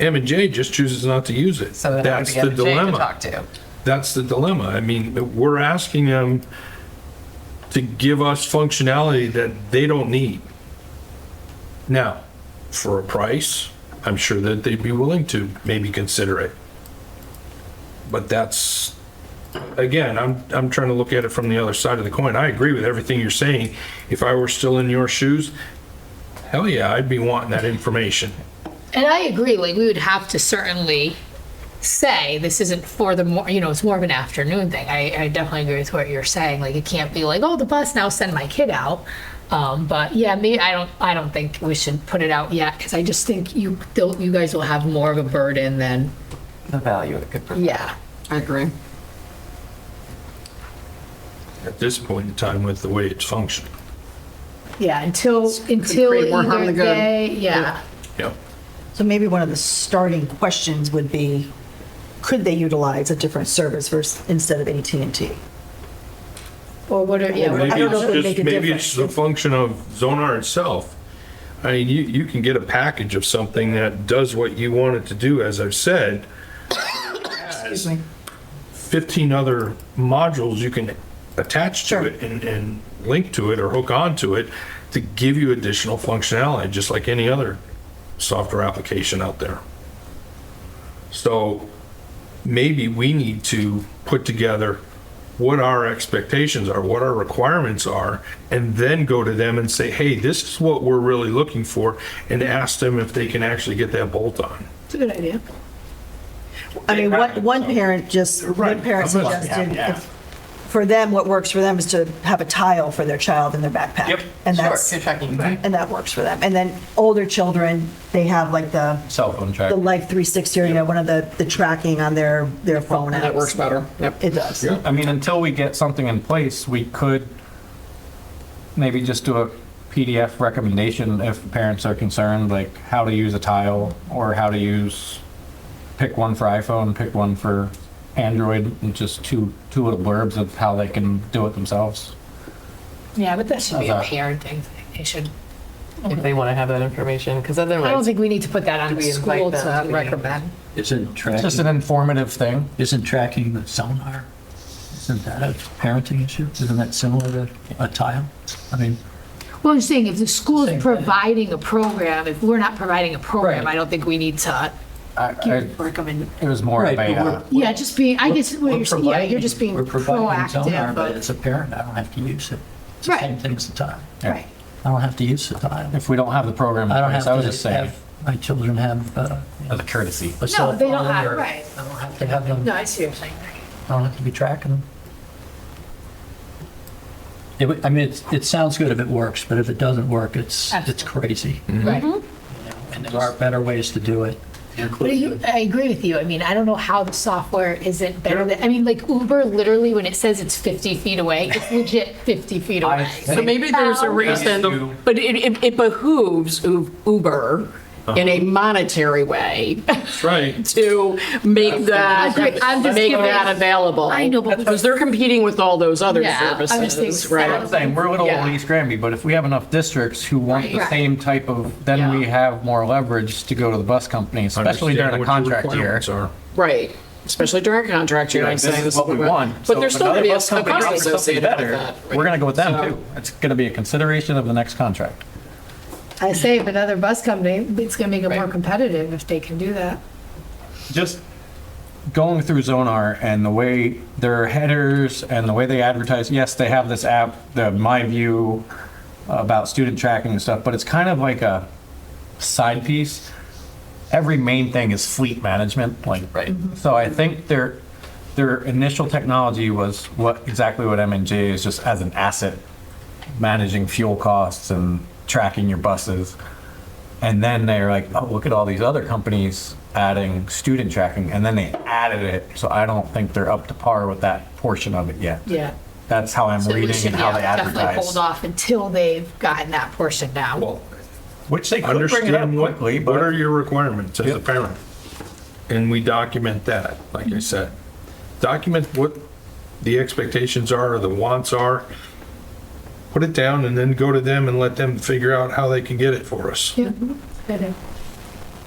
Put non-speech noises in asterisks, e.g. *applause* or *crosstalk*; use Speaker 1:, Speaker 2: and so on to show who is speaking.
Speaker 1: M and J just chooses not to use it.
Speaker 2: So then I would
Speaker 1: That's the
Speaker 2: be getting Jay to
Speaker 1: dilemma.
Speaker 2: talk to.
Speaker 1: That's the dilemma. I mean, we're asking them to give us functionality that they don't need. Now, for a price, I'm sure that they'd be willing to maybe consider it. But that's, again, I'm, I'm trying to look at it from the other side of the coin. I agree with everything you're saying. If I were still in your shoes, hell yeah, I'd be wanting that information.
Speaker 3: And I agree, like, we would have to certainly say this isn't for the more, you know, it's more of an afternoon thing. I, I definitely agree with what you're saying. Like, it can't be like, oh, the bus now send my kid out. Um, but yeah, me, I don't, I don't think we should put it out yet because I just think you, they'll- you guys will have more of a burden than,
Speaker 2: The value it could bring.
Speaker 3: yeah.
Speaker 4: I agree.
Speaker 1: At this point in time, with the way it's functioning.
Speaker 3: Yeah, until, until
Speaker 4: create more harm
Speaker 3: either
Speaker 4: than good.
Speaker 3: they, yeah.
Speaker 1: Yep.
Speaker 5: So maybe one of the starting questions would be, could they utilize a different service versus, instead of at and T?
Speaker 3: Or what are, yeah, what-
Speaker 5: I
Speaker 1: Maybe
Speaker 5: don't know if it would
Speaker 1: it's
Speaker 5: make
Speaker 1: just,
Speaker 5: a
Speaker 1: maybe it's the
Speaker 5: difference.
Speaker 1: function of Zonar itself. I mean, you, you can get a package of something that does what you want it to do, as I've said.
Speaker 5: Excuse me.
Speaker 1: Fifteen other modules you can attach to
Speaker 5: Sure.
Speaker 1: it and, and link to it or hook onto it to give you additional functionality, just like any other software application out there. So maybe we need to put together what our expectations are, what our requirements are, and then go to them and say, hey, this is what we're really looking for, and ask them if they can actually get that bolt on.
Speaker 3: it's a good idea.
Speaker 5: I mean, one, one parent just, one
Speaker 1: Right.
Speaker 5: parent
Speaker 1: I'm not-
Speaker 5: suggested, if- for them, what works for them is to have a tile for their child in their backpack.
Speaker 6: Yep.
Speaker 5: And
Speaker 2: Sure,
Speaker 5: that's,
Speaker 2: you're checking.
Speaker 5: and that works for them. And then older children, they have like the,
Speaker 6: Cell phone track.
Speaker 5: the Life 360, or, you know, one of the, the tracking on their, their phone apps.
Speaker 4: That works better. Yep.
Speaker 5: It does.
Speaker 6: I mean, until we get something in place, we could maybe just do a PDF recommendation if parents are concerned, like how to use a tile or how to use, pick one for iPhone, pick one for Android, and just two, two little blurbs of how they can do it themselves.
Speaker 3: Yeah, but that should be a
Speaker 6: How's that?
Speaker 3: parenting thing. They should,
Speaker 2: If they want to have that information, because
Speaker 3: I don't
Speaker 2: otherwise,
Speaker 3: think we need to put that on
Speaker 2: Do
Speaker 3: the
Speaker 2: we invite
Speaker 3: school to
Speaker 2: them?
Speaker 3: recommend.
Speaker 7: Isn't
Speaker 6: Just an
Speaker 7: tracking,
Speaker 6: informative thing.
Speaker 7: isn't tracking the sonar, isn't that a parenting issue? Isn't that similar to a tile? I mean,
Speaker 3: Well, I'm saying if the school
Speaker 7: Same
Speaker 3: is
Speaker 7: thing.
Speaker 3: providing a program, if we're not providing a program,
Speaker 6: Right.
Speaker 3: I don't think we need to
Speaker 6: I, I,
Speaker 3: give recommend.
Speaker 6: it was more of
Speaker 7: right,
Speaker 6: a,
Speaker 7: but
Speaker 6: uh,
Speaker 7: we're.
Speaker 3: Yeah, just being, I guess, what you're,
Speaker 7: we're
Speaker 3: yeah, you're
Speaker 7: providing-
Speaker 3: just being
Speaker 7: We're providing sonar,
Speaker 3: proactive,
Speaker 7: but
Speaker 3: but,
Speaker 7: as a parent, I don't have to use it. It's the
Speaker 3: Right.
Speaker 7: same thing as a tile.
Speaker 3: right.
Speaker 7: I don't have to use the tile.
Speaker 6: if we don't have the program,
Speaker 7: I
Speaker 6: in
Speaker 7: don't
Speaker 6: place, Mm, I was
Speaker 7: have
Speaker 6: just
Speaker 7: to
Speaker 6: saying,
Speaker 7: have, my children have uh,
Speaker 6: as a courtesy.
Speaker 7: a cell
Speaker 3: they don't
Speaker 7: phone
Speaker 3: have-
Speaker 7: or-
Speaker 3: right.
Speaker 7: I don't have to have them,
Speaker 3: No,
Speaker 7: I
Speaker 3: I see what you're saying.
Speaker 7: don't have to be tracking them. It would- I mean, it's- it sounds good if it works, but if it doesn't work, it's, it's crazy.
Speaker 3: Right.
Speaker 7: And there are better ways to do it.
Speaker 3: But you, I agree with you. I mean, I don't know how the software isn't better than, I mean, like Uber, literally, when it says it's 50 feet away, it's legit 50 feet away.
Speaker 2: so maybe there's a reason, but it, it- it behooves U- Uber
Speaker 6: Uh-huh.
Speaker 2: in a monetary way *laughs*
Speaker 1: That's right.
Speaker 2: to make that,
Speaker 3: Agree. I'm just
Speaker 2: make
Speaker 3: giving-
Speaker 2: that available.
Speaker 3: I know, but-
Speaker 2: Because they're competing with all those other
Speaker 3: Yeah, I was
Speaker 2: services,
Speaker 3: thinking
Speaker 2: right?
Speaker 3: sound.
Speaker 6: saying, we're little
Speaker 2: Yeah.
Speaker 6: old East Granby, but if we have enough districts who want the
Speaker 3: Right.
Speaker 6: same type of, then we
Speaker 2: Yeah.
Speaker 6: have more leverage to go to the bus company, especially during a
Speaker 1: Understand what your
Speaker 6: contract year.
Speaker 1: requirements are.
Speaker 2: Right, especially during contract year,
Speaker 6: Like,
Speaker 2: I'm saying.
Speaker 6: this is what we want.
Speaker 2: But there's
Speaker 6: So
Speaker 2: still
Speaker 6: if
Speaker 2: gonna be a
Speaker 6: another bus
Speaker 2: a
Speaker 6: company
Speaker 2: cost
Speaker 6: offers something
Speaker 2: associated with
Speaker 6: better,
Speaker 2: that. right?
Speaker 6: We're gonna go with them
Speaker 2: So-
Speaker 6: too. It's gonna be a consideration of the next contract.
Speaker 3: I say if another bus company, it's gonna make it more
Speaker 2: Right.
Speaker 3: competitive if they can do that.
Speaker 6: Just going through Zonar and the way their headers and the way they advertise, yes, they have this app, the My View about student tracking and stuff, but it's kind of like a side piece. Every main thing is fleet management, like, right? So I think their, their initial technology was what, exactly what M and J is, just as an asset, managing fuel costs and tracking your buses. And then they're like, oh, look at all these other companies adding student tracking, and then they added it. So I don't think they're up to par with that portion of it yet.
Speaker 3: Yeah.
Speaker 6: That's how I'm
Speaker 3: So we
Speaker 6: reading
Speaker 3: should,
Speaker 6: and how
Speaker 3: yeah,
Speaker 6: they
Speaker 3: Definitely hold
Speaker 6: advertise.
Speaker 3: off until they've gotten that portion down.
Speaker 1: Well,
Speaker 6: Which they could bring it up
Speaker 1: understand what,
Speaker 6: quickly,
Speaker 1: what are
Speaker 6: but
Speaker 1: your requirements as a
Speaker 6: Yep.
Speaker 1: parent? And we document that, like I said. Document what the expectations are, or the wants are. Put it down and then go to them and let them figure out how they can get it for us.
Speaker 3: Yeah.